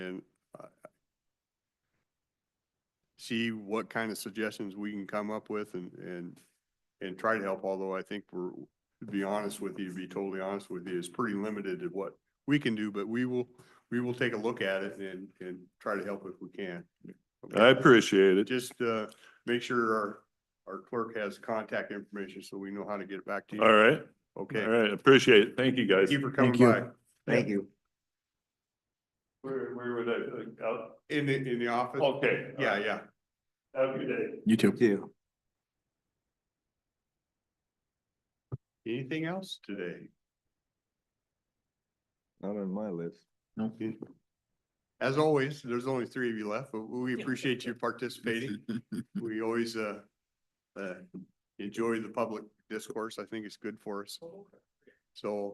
and uh, see what kind of suggestions we can come up with and, and, and try to help, although I think we're, to be honest with you, to be totally honest with you, is pretty limited at what we can do, but we will, we will take a look at it and, and try to help if we can. I appreciate it. Just, uh, make sure our, our clerk has contact information so we know how to get back to you. All right, all Okay. right, appreciate it. Thank you, guys. Thank you for coming Thank you. by. Thank you. Where, where would I, out, In the, in the office? okay. Yeah, yeah. Have a good day. You too. Anything else today? Not on my list. As always, there's only three of you left, but we appreciate you participating. We always, uh, uh, enjoy the public discourse. I think it's good for us. So